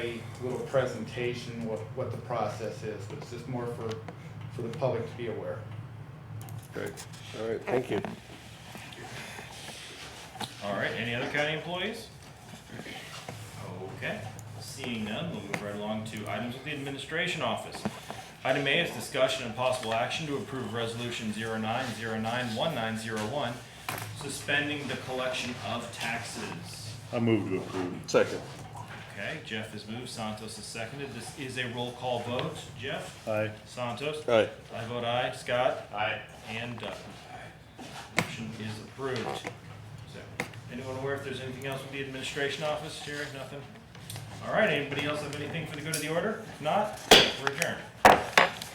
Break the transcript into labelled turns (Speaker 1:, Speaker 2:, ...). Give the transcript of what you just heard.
Speaker 1: a little presentation, what, what the process is, but it's just more for, for the public to be aware.
Speaker 2: Okay, all right, thank you.
Speaker 3: All right, any other county employees? Okay, seeing none, we'll move right along to items with the administration office. Item A is discussion and possible action to approve resolution 09091901, suspending the collection of taxes.
Speaker 4: I move to approve.
Speaker 2: Second.
Speaker 3: Okay, Jeff has moved, Santos is seconded, this is a roll call vote, Jeff?
Speaker 4: Aye.
Speaker 3: Santos?
Speaker 2: Aye.
Speaker 3: I vote aye, Scott?
Speaker 4: Aye.
Speaker 3: And Doug. Motion is approved. So, Anyone aware if there's anything else with the administration office, Jerry? Nothing? All right, anybody else have anything for the good of the order? If not, we're adjourned.